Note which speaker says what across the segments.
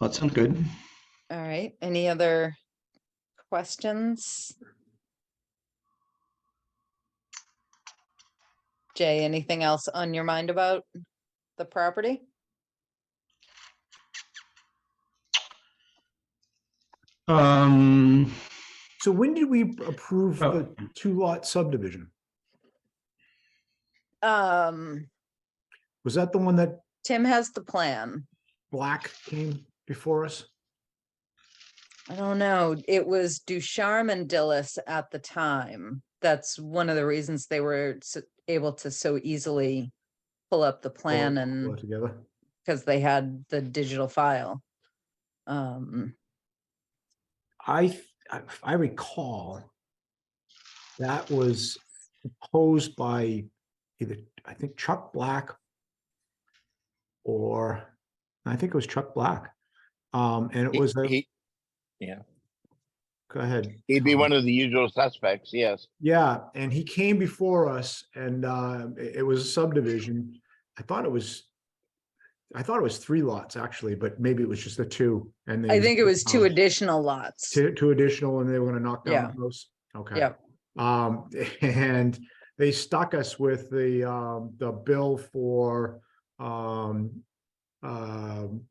Speaker 1: That sounds good.
Speaker 2: All right, any other questions? Jay, anything else on your mind about the property?
Speaker 1: Um,
Speaker 3: So when did we approve
Speaker 1: Oh.
Speaker 3: the two lot subdivision?
Speaker 2: Um,
Speaker 3: Was that the one that
Speaker 2: Tim has the plan.
Speaker 3: Black came before us?
Speaker 2: I don't know, it was Ducharme and Dillis at the time. That's one of the reasons they were s- able to so easily pull up the
Speaker 3: All-
Speaker 2: plan
Speaker 4: Mm.
Speaker 3: all
Speaker 2: and
Speaker 3: Together,
Speaker 2: because they had the digital file. Um,
Speaker 3: I, th- I- if I recall that was proposed by either, I think Chuck Black or, I think it was Chuck Black. Um, and it
Speaker 4: He-
Speaker 3: was, a
Speaker 4: he-
Speaker 3: go ahead.
Speaker 4: He'd be
Speaker 3: Tom.
Speaker 4: one of the usual suspects, yes.
Speaker 3: Yeah, and he came before us and uh, it it was a subdivision. I thought it was, I thought it was three lots actually, but maybe it was just the two and. they
Speaker 2: I think it was two
Speaker 3: additional.
Speaker 2: additional lots.
Speaker 3: Two, two additional and they were gonna knock down the house? Okay.
Speaker 2: Yep.
Speaker 3: Um, and they stuck us with the, um, the bill for, um, um,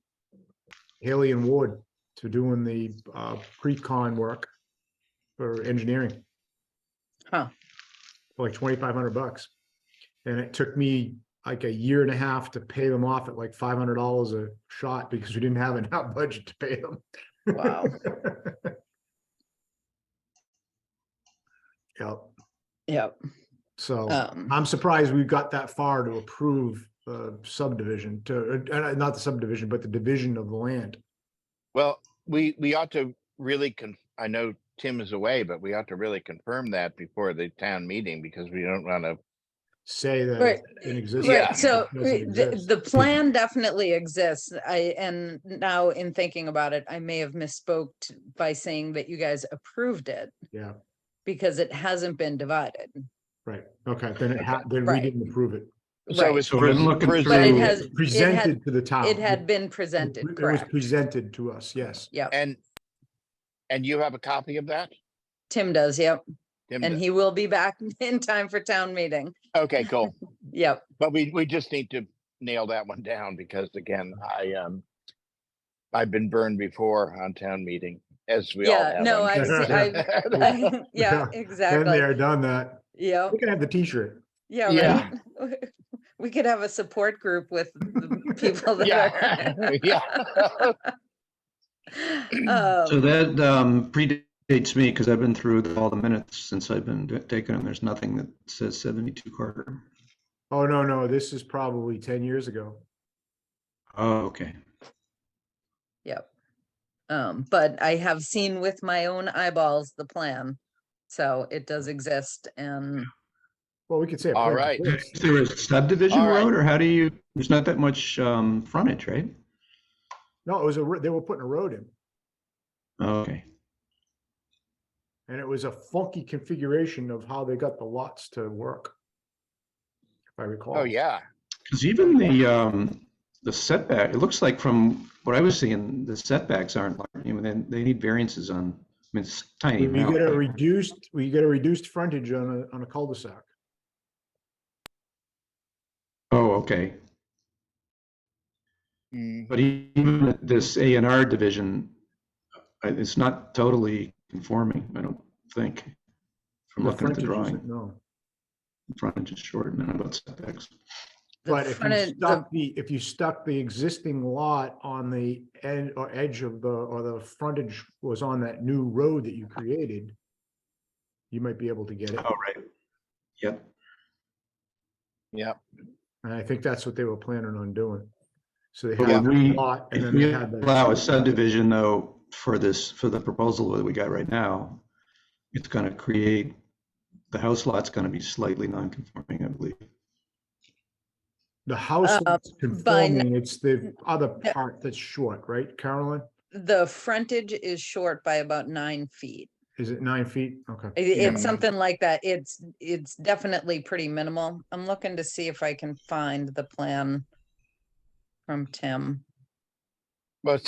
Speaker 3: Haley and Ward to doing the, uh, pre-con work for engineering.
Speaker 2: Huh.
Speaker 3: For like twenty-five hundred bucks. And it took me like a year and a half to pay them off at like five hundred dollars a shot because we didn't have enough budget to pay them.
Speaker 2: Wow.
Speaker 3: Yep,
Speaker 2: Yep.
Speaker 3: so
Speaker 2: Um,
Speaker 3: I'm surprised we got that far to approve the subdivision to, uh, uh, not the subdivision, but the division of the land.
Speaker 4: Well, we, we ought to really con, I know Tim is away, but we ought to really confirm that before the town meeting because we don't want to,
Speaker 3: Say
Speaker 2: Right.
Speaker 3: that in existence.
Speaker 4: Yeah.
Speaker 2: right, so
Speaker 3: Doesn't
Speaker 2: uh, the,
Speaker 3: exist.
Speaker 2: the plan definitely exists. I, and now in thinking about it, I may have misspoke t- by saying that you guys approved it
Speaker 3: Yeah,
Speaker 2: because it hasn't been divided.
Speaker 3: right. Okay, then it had, then we
Speaker 2: Right.
Speaker 3: didn't approve it.
Speaker 4: so it
Speaker 2: Right.
Speaker 4: was
Speaker 1: So we're
Speaker 4: pres-
Speaker 1: looking
Speaker 4: pres-
Speaker 2: But it
Speaker 1: through-
Speaker 2: has-
Speaker 3: Presented to the town.
Speaker 2: It had been
Speaker 3: It-
Speaker 2: presented,
Speaker 3: It was
Speaker 2: correct?
Speaker 3: presented to us, yes.
Speaker 4: and, and you have a copy of that?
Speaker 2: Tim does, yep.
Speaker 4: Tim
Speaker 2: And
Speaker 4: does.
Speaker 2: he will be back in time for town meeting.
Speaker 4: Okay, cool.
Speaker 2: Yep.
Speaker 4: But we, we just need to nail that one down because again, I, um, I've been burned before on town meeting, as we all
Speaker 2: Yeah,
Speaker 4: have.
Speaker 2: no,
Speaker 4: I'm
Speaker 3: I
Speaker 4: sure.
Speaker 3: see-
Speaker 2: Yeah,
Speaker 3: Been Been
Speaker 2: exactly.
Speaker 3: there, done that.
Speaker 2: Yep.
Speaker 3: We can have the t-shirt.
Speaker 2: Yeah,
Speaker 4: Yeah.
Speaker 2: right. We could have a support group with the people that
Speaker 4: Yeah, yeah.
Speaker 2: are.
Speaker 1: so
Speaker 2: um,
Speaker 1: that um, predates me because I've been through all the minutes since I've been d- taken, and there's nothing that says 72 Carter.
Speaker 3: Oh, no, no, this is probably ten years ago.
Speaker 1: Oh, okay.
Speaker 2: Yep. Um, but I have seen with my own eyeballs the plan. So it does exist and
Speaker 3: Well, we could say. it
Speaker 4: All
Speaker 3: plain
Speaker 4: right.
Speaker 3: words.
Speaker 1: Is there a subdivision
Speaker 4: All right.
Speaker 1: road, or how do you? There's not that much um, frontage, right?
Speaker 3: No, it was a, ro- they were putting a road in
Speaker 1: Okay.
Speaker 3: and it was a funky configuration of how they got the lots to work. If I recall.
Speaker 4: Oh, yeah.
Speaker 1: Because even the, um, the setback, it looks like from what I was seeing, the setbacks aren't, large. you know, they, they need variances on, I mean, it's tiny.
Speaker 3: You you get a
Speaker 1: amount.
Speaker 3: reduced, we get a reduced frontage on a, on a cul-de-sac.
Speaker 1: Oh, okay.
Speaker 4: Mm,
Speaker 1: But e- even at this A and R division, I- it's not totally conforming, I don't think. From looking at the
Speaker 3: frontage
Speaker 1: drawing,
Speaker 3: isn't- No,
Speaker 1: frontage is short and then about setbacks.
Speaker 2: the
Speaker 3: but if you
Speaker 2: frontage, the,
Speaker 3: stuck the, if you stuck the existing lot on the end or edge of the, or the frontage was on that new road that you created, you might be able to get it.
Speaker 1: Oh, right. Yep.
Speaker 4: Yeah,
Speaker 3: And I think that's what they were planning on doing. So they
Speaker 1: But
Speaker 3: had
Speaker 1: would we-
Speaker 3: a lot and
Speaker 1: If
Speaker 3: then they
Speaker 1: we
Speaker 3: had the.
Speaker 1: allow a subdivision though, for this, for the proposal that we got right now, it's gonna create, the house lot's gonna be slightly non-conforming, I believe.
Speaker 3: The house
Speaker 2: Uh,
Speaker 3: that's
Speaker 2: by n-
Speaker 3: conforming, it's the other
Speaker 2: Yeah.
Speaker 3: part that's short, right, Carolyn?
Speaker 2: the frontage is short by about nine feet.
Speaker 3: Is it nine feet? Okay.
Speaker 2: I- It's
Speaker 4: Yeah.
Speaker 3: Mm.
Speaker 2: something like that. It's, it's definitely pretty minimal. I'm looking to see if I can find the plan from Tim.
Speaker 4: well,